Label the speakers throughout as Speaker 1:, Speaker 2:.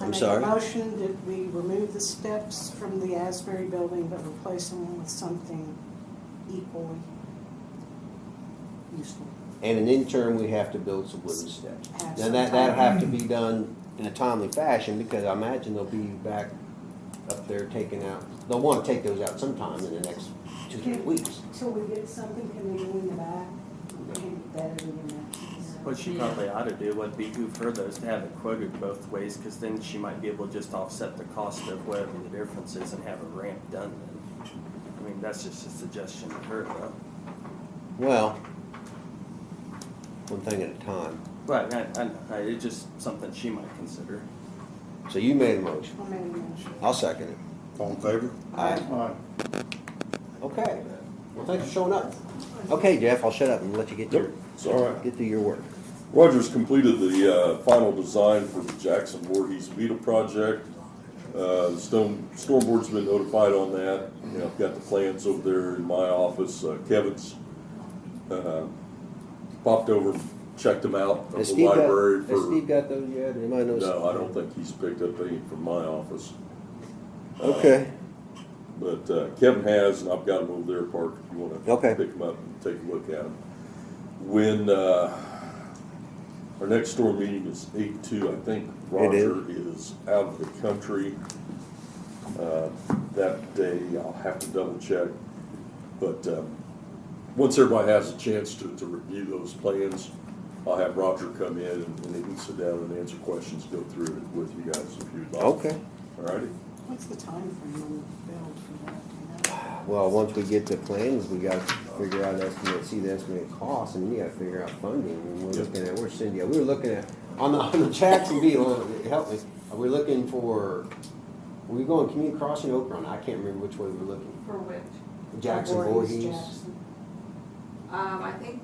Speaker 1: I'm
Speaker 2: make
Speaker 1: sorry?
Speaker 2: a motion that we remove the steps from the Asbury building, but replace them with something equally useful.
Speaker 1: And in interim, we have to build some wooden steps.
Speaker 2: Have
Speaker 1: Now,
Speaker 2: some
Speaker 1: that, that'll
Speaker 2: time.
Speaker 1: have to be done in a timely fashion, because I imagine they'll be back up there taking out, they'll wanna take those out sometime in the next two, three
Speaker 2: Okay.
Speaker 1: weeks.
Speaker 2: Till we get something, can we lean back? Better than that.
Speaker 3: What she probably ought to do would be do further is to have it quoted both ways, because then she might be able to just offset the cost of whatever the difference is and have a ramp done then. I mean, that's just a suggestion to her, though.
Speaker 1: Well, one thing at a time.
Speaker 3: Right, I, I, I, it's just something she might consider.
Speaker 1: So you made a motion.
Speaker 2: I'll make a motion.
Speaker 1: I'll second it.
Speaker 4: All in favor?
Speaker 1: Aye.
Speaker 4: Aye.
Speaker 1: Okay. Well, thanks for showing up. Okay, Jeff, I'll shut up and let you get your,
Speaker 5: Nope, it's all right.
Speaker 1: get through your work.
Speaker 5: Rogers completed the uh, final design for the Jackson Voorhees Vita project. Uh, the Stone, Storm Board's been notified on that. You know, I've got the plans over there in my office. Uh, Kevin's uh, popped over, checked them out at
Speaker 1: Has
Speaker 5: the
Speaker 1: Steve got,
Speaker 5: library
Speaker 1: has
Speaker 5: for.
Speaker 1: Steve got those yet? Anybody knows?
Speaker 5: No, I don't think he's picked up any from my office. Uh,
Speaker 1: Okay,
Speaker 5: But uh, Kevin has, and I've got them over there, Park, if you want to
Speaker 1: Okay.
Speaker 5: pick them up and take a look at them. When uh, our next store meeting is 8 2, I think Roger is out of the country uh, that day. I'll have to double check. But um, once everybody has a chance to, to review those plans, I'll have Roger come in and, and he can sit down and answer questions, go through it with you guys if you'd like.
Speaker 1: okay.
Speaker 5: All righty.
Speaker 2: What's the time frame on the build for that? do you know?
Speaker 1: Well, once we get the plans, we gotta figure out estimate, see the estimated cost, and then you gotta figure out funding, and we're
Speaker 5: Yep.
Speaker 1: looking at, where's Cindy, at? we were looking at, on the, on the Jackson deal, uh, help me, are we looking for, were we going community crossing Oak Run, I can't remember which way we were looking,
Speaker 6: For which,
Speaker 1: Jackson
Speaker 2: Voorhees,
Speaker 1: Voorhees?
Speaker 2: Jackson.
Speaker 6: um, I think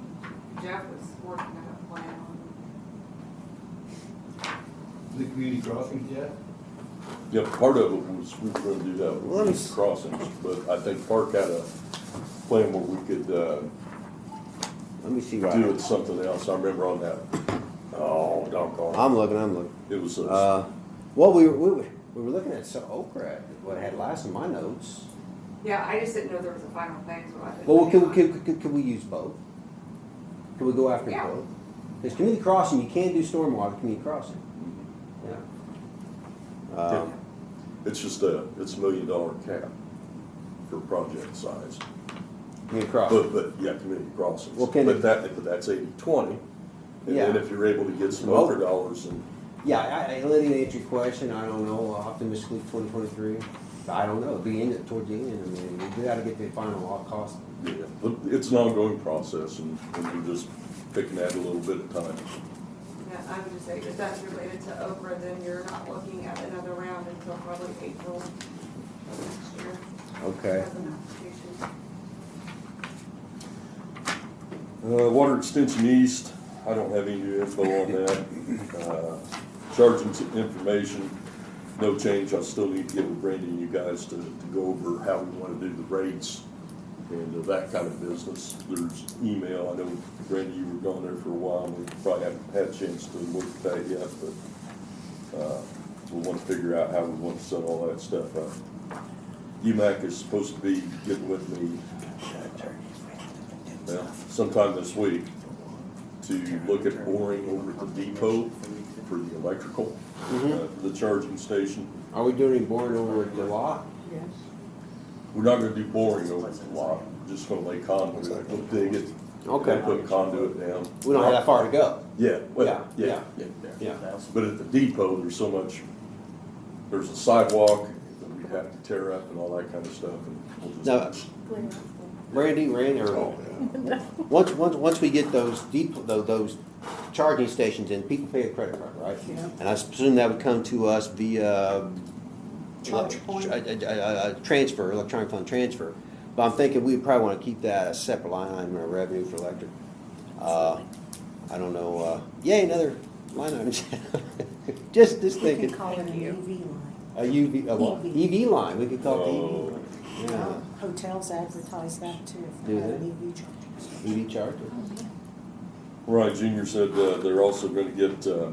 Speaker 6: Jeff was working on a plan on,
Speaker 7: The community crossings yet?
Speaker 5: Yeah, part of it was, we were gonna do that
Speaker 1: Well, let me
Speaker 5: with
Speaker 1: s-
Speaker 5: these crossings, but I think Park had a plan where we could, uh,
Speaker 1: Let me see, right,
Speaker 5: do it something else, I remember on that, oh, doggone,
Speaker 1: I'm looking, I'm looking,
Speaker 5: it was, a-
Speaker 1: uh, well, we were, we were, we were looking at so- Oak Run, what I had last in my notes.
Speaker 6: yeah, I just didn't know there was a final thing, so I didn't.
Speaker 1: Well, can, can, can, can we use both? Can we go after
Speaker 6: Yeah.
Speaker 1: both? Because community crossing, you can do stormwater community crossing. Yeah. Um,
Speaker 5: it's just a, it's a million dollar cap for project size.
Speaker 1: community crossing.
Speaker 5: But, but, yeah, community crossings,
Speaker 1: Well, can it-
Speaker 5: but that, but that's eighty, twenty, and then
Speaker 1: Yeah. Oh.
Speaker 5: if you're able to get some
Speaker 1: Well-
Speaker 5: other dollars and,
Speaker 1: Yeah, I, I let him answer your question. I don't know, optimistically twenty twenty-three. I don't know, be in it toward the end. I mean, we gotta get the final all cost.
Speaker 5: yeah, but it's an ongoing process, and, and you're just picking at it a little bit at a time.
Speaker 6: Yeah, I would just say, if that's related to Oprah, then you're not looking at another round until probably April of next year.
Speaker 1: Okay.
Speaker 6: As an application.
Speaker 5: Uh, water extension east, I don't have any new info on that. Uh, Charging t- information, no change, I still need to get with Brandy and you guys to, to go over how we wanna do the rates and uh, that kind of business. There's email, I know Brandy, you were gone there for a while, and we probably haven't had a chance to look at that yet, but, uh, we wanna figure out how we wanna set all that stuff up. UMAC is supposed to be getting with me well, sometime this week to look at boring over at the depot for the electrical, uh, for the charging station.
Speaker 1: Mm-hmm. Are we doing any boring over at the lot?
Speaker 2: Yes.
Speaker 5: We're not gonna do boring over the lot, just gonna lay conduit, we'll dig it.
Speaker 1: Okay.
Speaker 5: Put conduit down.
Speaker 1: We don't have that far to go.
Speaker 5: Yeah,
Speaker 1: Yeah,
Speaker 5: well, yeah,
Speaker 1: yeah.
Speaker 5: yeah, yeah.
Speaker 1: Yeah.
Speaker 5: But at the depot, there's so much, there's a sidewalk that we have to tear up and all that kind of stuff, and we'll
Speaker 1: Now,
Speaker 5: just.
Speaker 1: Randy, Randy, or
Speaker 5: Oh, yeah.
Speaker 1: Once, once, once we get those deep, tho- those charging stations in, people pay a credit card, right?
Speaker 2: Yeah.
Speaker 1: And I presume that would come to us via. uh,
Speaker 2: Charge point.
Speaker 1: A, a- a- a transfer, electronic fund transfer. But I'm thinking we probably wanna keep that a separate line item in our revenue for electric. Uh, I don't know, uh, yay, another line item. Just, just
Speaker 2: We E can
Speaker 1: thinking,
Speaker 2: call it an E EV line.
Speaker 1: a uh, UV, a what?
Speaker 2: EV.
Speaker 1: EV E line, we could call
Speaker 5: Oh.
Speaker 1: it E the EV. line.
Speaker 2: Hotels advertise that too, if
Speaker 1: Do
Speaker 2: they have
Speaker 1: they?
Speaker 2: an E EV chargers.
Speaker 1: Yeah, EV E charger.
Speaker 5: Ryan Junior said uh, they're also gonna get uh,